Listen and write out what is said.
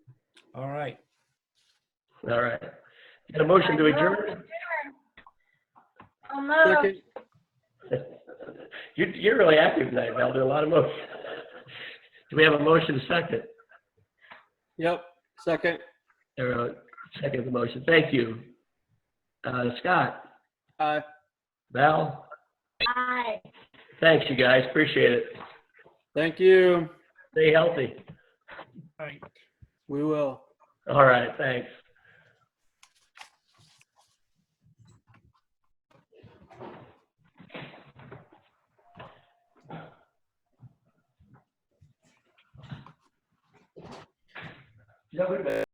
All right. All right. Got a motion to adjourn? I'll move. Second, You, you're really active tonight, Val, do a lot of motions. Do we have a motion second? yep, second. Or uh, second the motion, thank you. Uh, Scott, Aye. Val, Aye. thanks you guys, appreciate it. Thank you. Stay healthy. All right. We will. All right, thanks.